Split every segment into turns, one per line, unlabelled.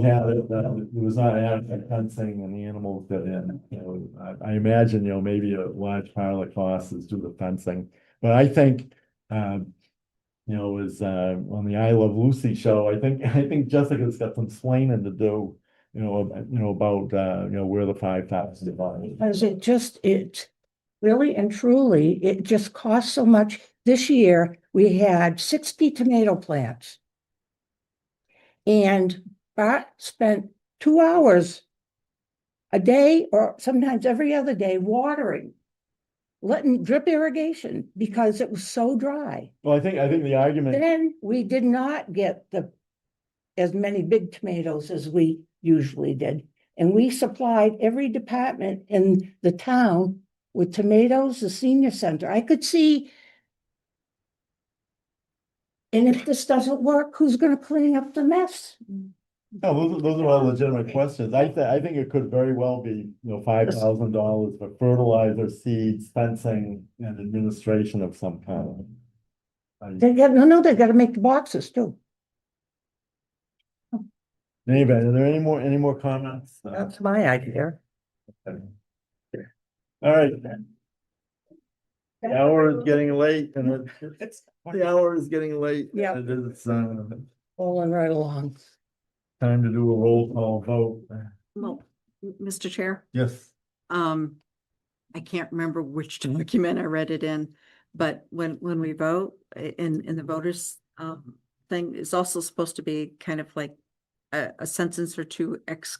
Yeah, that, that uh, was not adequate fencing and the animals got in, you know, I, I imagine, you know, maybe a large pile of costs is due to fencing. But I think, um, you know, was, uh, on the I Love Lucy show, I think, I think Jessica's got some slaining to do. You know, ab- you know, about, uh, you know, where the five tops divide.
Because it just, it really and truly, it just costs so much. This year, we had sixty tomato plants. And Bart spent two hours a day or sometimes every other day watering, letting drip irrigation because it was so dry.
Well, I think, I think the argument,
Then we did not get the, as many big tomatoes as we usually did. And we supplied every department in the town with tomatoes, the senior center. I could see. And if this doesn't work, who's gonna clean up the mess?
no, those, are- those are
Um,
all legitimate questions. I, thi- I think it could very well be, you know, five thousand dollars for fertilizer, seeds, fencing, and administration of some kind. I-
They got, no, no, they gotta make the boxes too.
Anybody, are there any more, any more comments? No.
That's my idea.
Okay. All right. The hour is getting late and it, the hour is getting late. and
Yeah.
It is, uh,
Rolling right along.
time to do a roll call vote.
Well,
Mm-hmm.
m- Mr. Chair,
Yes.
um, I can't remember which
Mm-hmm.
document I read it in, but when, when we vote, i- in, in the voters, um, thing is also supposed to be kind of like a, a sentence or two ex,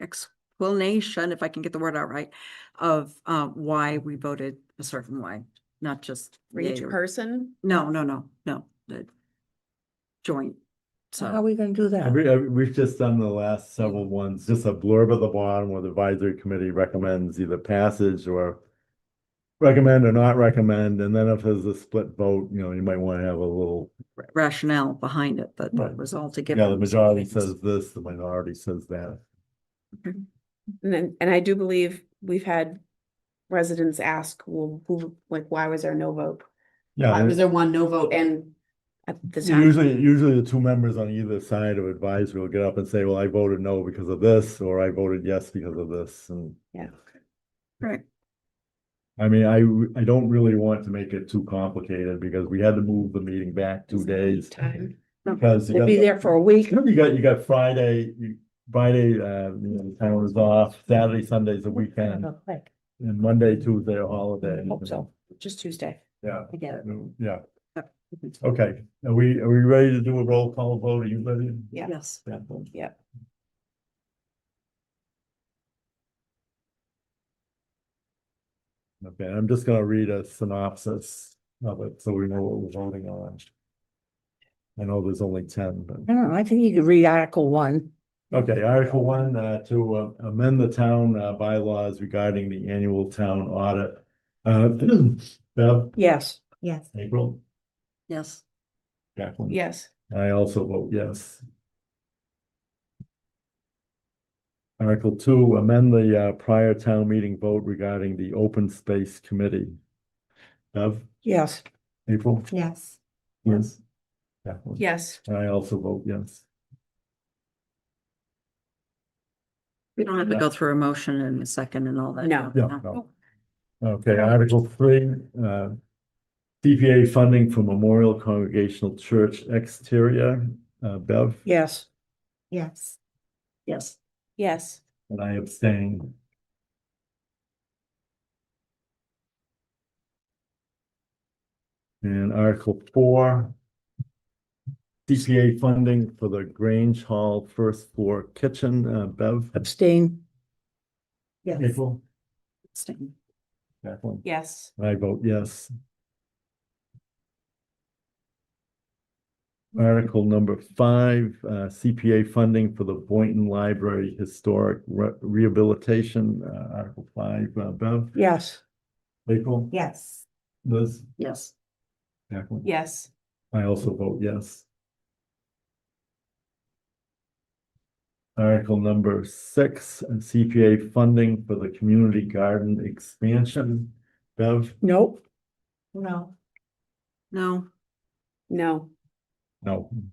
explanation, if I can get the word out right, of, uh, why we voted a certain way, not just.
For each
yay or-
person?
No, no, no, no, the joint,
So how are
so,
we gonna do that?
We, we've just done the last several ones, just a blurb at the bottom where the advisory committee recommends either passage or recommend or not recommend, and then if there's a split vote, you know, you might want to have a little,
rationale behind it, that
Right.
was all to give.
yeah, the majority says this, the minority says that.
And then, and I do believe we've had residents ask, well, who, like, why was there no vote? Why
Yeah,
was there one no vote and at the time?
Usually, usually the two members on either side of advisory will get up and say, well, I voted no because of this, or I voted yes because of this, and.
Yeah.
Right.
I mean, I, w- I don't really want to make it too complicated because we had to move the meeting back two days.
Time.
Because you
We'll be
got,
there for a week.
you got, you got Friday, you- Friday, uh, you know, the town is off, Saturday, Sunday's a weekend,
Like,
and Monday, Tuesday, a holiday.
Hope so.
Just Tuesday.
Yeah, Mm,
I get it.
yeah, okay, are we, are we ready to do a roll call vote, are you ready?
Yeah.
Yes.
Yeah.
Okay, I'm just gonna read a synopsis of it, so we know what we're voting on. I know there's only ten,
I
but,
don't know, I think you could read Article One.
okay, Article one, uh, to uh, amend the town uh, bylaws regarding the annual town audit. Uh, Bev,
Yes. Yes.
April,
Yes.
Jacqueline?
Yes.
I also vote yes. Article two, amend the uh, prior town meeting vote regarding the open space committee. Bev,
Yes.
April?
Yes.
Yes. Jacqueline?
Yes.
I also vote yes.
We don't have to go through a motion and a second and all that.
No.
Yeah, no. Okay, Article three, uh, CPA funding for Memorial Congregational Church exterior, uh, Bev,
Yes.
Yes.
Yes,
Yes.
and I abstain. And Article four, CPA funding for the Grange Hall first floor kitchen, uh, Bev,
Abstain. Yes.
April,
abstain.
Jacqueline.
Yes.
I vote yes. Article number five, uh, CPA funding for the Boynton Library Historic Re- Rehabilitation, uh, Article five, uh, Bev,
Yes.
April,
Yes.
Liz,
Yes,
Jacqueline.
Yes.
I also vote yes. Article number six, CPA funding for the community garden expansion, Bev,
Nope.
No.
no,
No.
no,